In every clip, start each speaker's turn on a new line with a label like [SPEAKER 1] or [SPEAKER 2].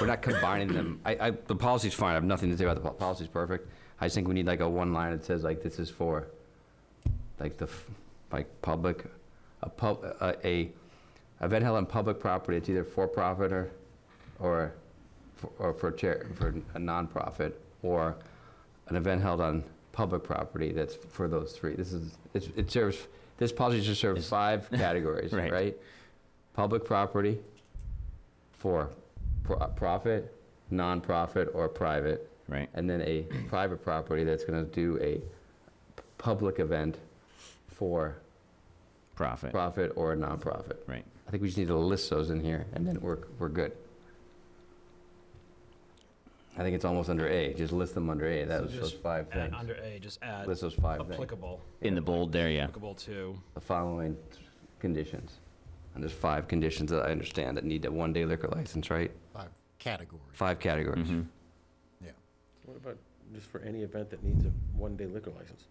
[SPEAKER 1] We're not combining them. I, I, the policy's fine. I have nothing to say about the po- policy's perfect. I just think we need like a one line that says like, this is for, like the, f- like public, a pub, a, a event held on public property. It's either for profit or, or, for- or for chair, for a nonprofit, or an event held on public property that's for those three. This is, it's, it serves, this policy should serve
[SPEAKER 2] Is-
[SPEAKER 1] five categories,
[SPEAKER 2] Right.
[SPEAKER 1] right? Public property, four, pro- profit, nonprofit, or private,
[SPEAKER 2] right?
[SPEAKER 1] and then a private property that's gonna do a public event for
[SPEAKER 2] Profit,
[SPEAKER 1] profit or a nonprofit.
[SPEAKER 2] right?
[SPEAKER 1] I think we just need to list those in here, and then we're, we're good. I think it's almost under A, just list them under A, that
[SPEAKER 3] So
[SPEAKER 1] was those
[SPEAKER 3] just
[SPEAKER 1] five
[SPEAKER 3] And
[SPEAKER 1] things.
[SPEAKER 3] under A, just add
[SPEAKER 1] List those five things,
[SPEAKER 3] applicable,
[SPEAKER 2] In the bold there, yeah.
[SPEAKER 3] applicable to,
[SPEAKER 1] the following conditions. And there's five conditions that I understand that need a one-day liquor license, right?
[SPEAKER 4] Five categories.
[SPEAKER 1] Five categories.
[SPEAKER 2] Mhm.
[SPEAKER 5] What about just for any event that needs a one-day liquor license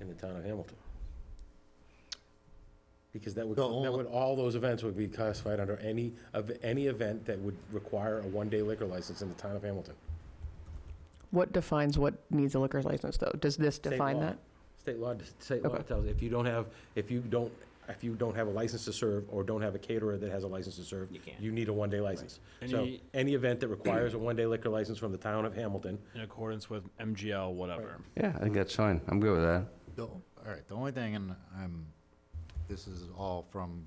[SPEAKER 5] in the town of Hamilton? Because that would,
[SPEAKER 4] The only-
[SPEAKER 5] that would, all those events would be classified under any, of, any event that would require a one-day liquor license in the town of Hamilton.
[SPEAKER 6] What defines what needs a liquor license, though? Does this
[SPEAKER 5] State
[SPEAKER 6] define
[SPEAKER 5] law.
[SPEAKER 6] that?
[SPEAKER 5] State law, state law
[SPEAKER 6] Okay.
[SPEAKER 5] tells, if you don't have, if you don't, if you don't have a license to serve, or don't have a caterer that has a license to serve,
[SPEAKER 2] You can't.
[SPEAKER 5] you need a one-day license. So,
[SPEAKER 3] Any-
[SPEAKER 5] any event that requires a one-day liquor license from the town of Hamilton,
[SPEAKER 3] in accordance with MGL, whatever.
[SPEAKER 1] Yeah, I think that's fine, I'm good with that.
[SPEAKER 4] The- All right, the only thing, and I'm, this is all from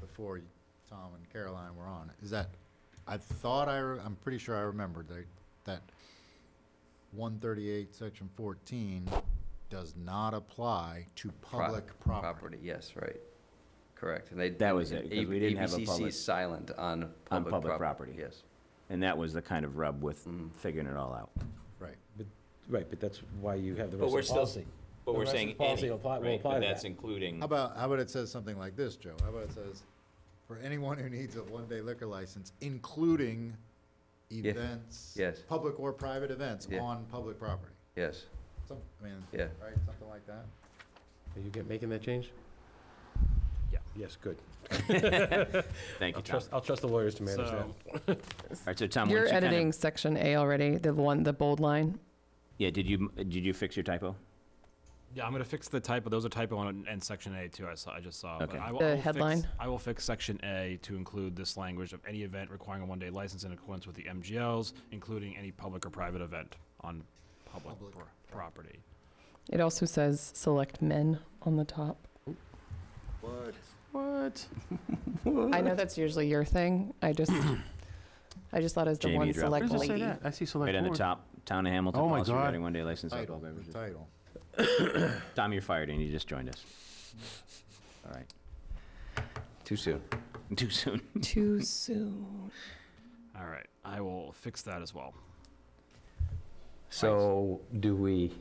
[SPEAKER 4] before Tom and Caroline were on, is that I thought I, re- I'm pretty sure I remembered that, that one thirty-eight, section fourteen does not apply to public property.
[SPEAKER 1] yes, right, correct, and they.
[SPEAKER 2] That was it, 'cause we didn't have a public-
[SPEAKER 1] ABCC's silent on public property.
[SPEAKER 2] public property.
[SPEAKER 1] Yes.
[SPEAKER 2] And that was the kind of rub with
[SPEAKER 1] Mm.
[SPEAKER 2] figuring it all out.
[SPEAKER 4] Right.
[SPEAKER 5] right, but that's why you have the
[SPEAKER 7] But
[SPEAKER 5] rest
[SPEAKER 7] we're
[SPEAKER 5] of the
[SPEAKER 7] still-
[SPEAKER 5] policy.
[SPEAKER 7] But
[SPEAKER 5] The
[SPEAKER 7] we're
[SPEAKER 5] rest of
[SPEAKER 7] saying
[SPEAKER 5] the policy
[SPEAKER 7] any,
[SPEAKER 5] will apply- will
[SPEAKER 7] right?
[SPEAKER 5] apply
[SPEAKER 7] But
[SPEAKER 5] to
[SPEAKER 7] that's
[SPEAKER 5] that.
[SPEAKER 7] including,
[SPEAKER 4] How about, how about it says something like this, Joe? How about it says, for anyone who needs a one-day liquor license, including events,
[SPEAKER 1] yes.
[SPEAKER 4] public or private events
[SPEAKER 1] Yeah.
[SPEAKER 4] on public property?
[SPEAKER 1] Yes,
[SPEAKER 4] Some, I mean,
[SPEAKER 1] yeah,
[SPEAKER 4] right, something like that?
[SPEAKER 5] Are you get, making that change?
[SPEAKER 3] Yeah.
[SPEAKER 5] Yes, good.
[SPEAKER 2] Thank
[SPEAKER 5] I'll
[SPEAKER 2] you, Tom.
[SPEAKER 5] trust, I'll trust the lawyers to manage that.
[SPEAKER 3] So,
[SPEAKER 2] All right, so Tom,
[SPEAKER 6] You're
[SPEAKER 2] once you kind
[SPEAKER 6] editing
[SPEAKER 2] of,
[SPEAKER 6] section A already, the one, the bold line.
[SPEAKER 2] yeah, did you, did you fix your typo?
[SPEAKER 3] yeah, I'm gonna fix the typo, those are typo on, and section A too, I saw, I just saw. but
[SPEAKER 2] Okay.
[SPEAKER 3] I will- I
[SPEAKER 6] The
[SPEAKER 3] will fix-
[SPEAKER 6] headline?
[SPEAKER 3] I will fix section A to include this language of any event requiring a one-day license in accordance with the MGLs, including any public or private event on public
[SPEAKER 4] Public.
[SPEAKER 3] pro- property.
[SPEAKER 6] It also says select men on the top.
[SPEAKER 4] What?
[SPEAKER 2] What?
[SPEAKER 6] I know that's usually your thing. I just, I just thought it was the
[SPEAKER 2] Jamie
[SPEAKER 6] one
[SPEAKER 2] dropped
[SPEAKER 6] select
[SPEAKER 2] it. Where does it say
[SPEAKER 6] lady.
[SPEAKER 8] I see
[SPEAKER 2] Right
[SPEAKER 8] select
[SPEAKER 2] on the
[SPEAKER 8] board.
[SPEAKER 2] top, Town of Hamilton,
[SPEAKER 8] Oh my
[SPEAKER 2] policy
[SPEAKER 8] God.
[SPEAKER 2] regarding one-day license. on
[SPEAKER 4] Title,
[SPEAKER 2] all
[SPEAKER 4] the
[SPEAKER 2] beverages.
[SPEAKER 4] title.
[SPEAKER 2] Tom, you're fired and you just joined us. All right,
[SPEAKER 1] too soon.
[SPEAKER 2] too soon.
[SPEAKER 6] Too soon.
[SPEAKER 3] All right, I will fix that as well.
[SPEAKER 1] So, do we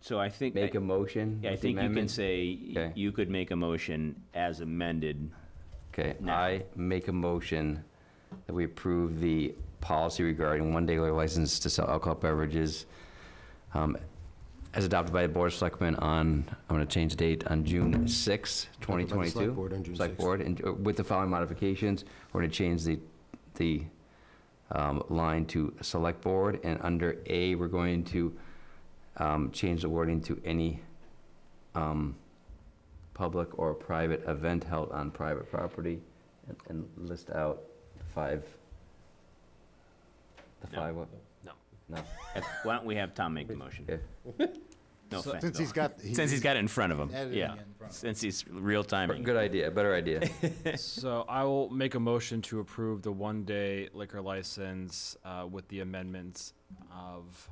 [SPEAKER 2] So I think,
[SPEAKER 1] make a
[SPEAKER 2] I
[SPEAKER 1] motion?
[SPEAKER 2] yeah, I
[SPEAKER 1] with the
[SPEAKER 2] think you can
[SPEAKER 1] amendment?
[SPEAKER 2] say,
[SPEAKER 1] Okay.
[SPEAKER 2] you could make a motion as amended.
[SPEAKER 1] Okay,
[SPEAKER 2] No.
[SPEAKER 1] I make a motion that we approve the policy regarding one-day liquor license to sell alcohol beverages um, as adopted by the Board of Selectmen on, I'm going to change the date, on June 6,
[SPEAKER 4] By the
[SPEAKER 1] 2022.
[SPEAKER 4] Select board on June
[SPEAKER 1] Select
[SPEAKER 4] 6th.
[SPEAKER 1] Board, and uh, with the following modifications, we're going to change the, the um, line to Select Board, and under A, we're going to um, change the wording to any um, public or private event held on private property, and- and list out the five, the
[SPEAKER 2] No.
[SPEAKER 1] five, what?
[SPEAKER 3] No.
[SPEAKER 1] No,
[SPEAKER 2] Why don't we have Tom make the motion?
[SPEAKER 1] okay.
[SPEAKER 2] No offense.
[SPEAKER 4] Since he's got.
[SPEAKER 2] Since he's got it in front of him,
[SPEAKER 4] editing
[SPEAKER 2] yeah.
[SPEAKER 4] in front of
[SPEAKER 2] Since he's real timing.
[SPEAKER 1] Good idea, better idea.
[SPEAKER 3] So I will make a motion to approve the one-day liquor license uh, with the amendments of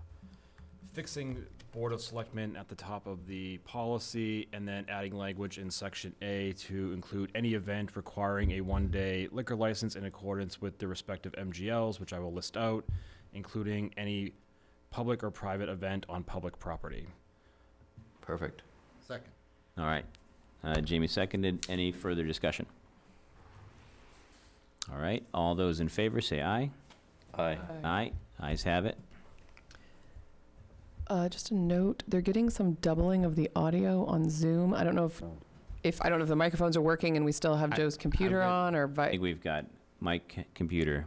[SPEAKER 3] fixing Board of Selectmen at the top of the policy and then adding language in Section A to include any event requiring a one-day liquor license in accordance with the respective MGLs, which I will list out, including any public or private event on public property.
[SPEAKER 1] Perfect.
[SPEAKER 4] Second.
[SPEAKER 2] All right. Uh, Jamie seconded. Any further discussion? All right. All those in favor say aye.
[SPEAKER 1] Aye.
[SPEAKER 2] Aye. Ayes have it.
[SPEAKER 6] Uh, just a note, they're getting some doubling of the audio on Zoom. I don't know if,
[SPEAKER 1] Oh.
[SPEAKER 6] if, I don't know if the microphones are working and we still have
[SPEAKER 2] I-
[SPEAKER 6] Joe's computer
[SPEAKER 2] read-
[SPEAKER 6] on or
[SPEAKER 2] I
[SPEAKER 6] vi-
[SPEAKER 2] think we've got Mike, computer,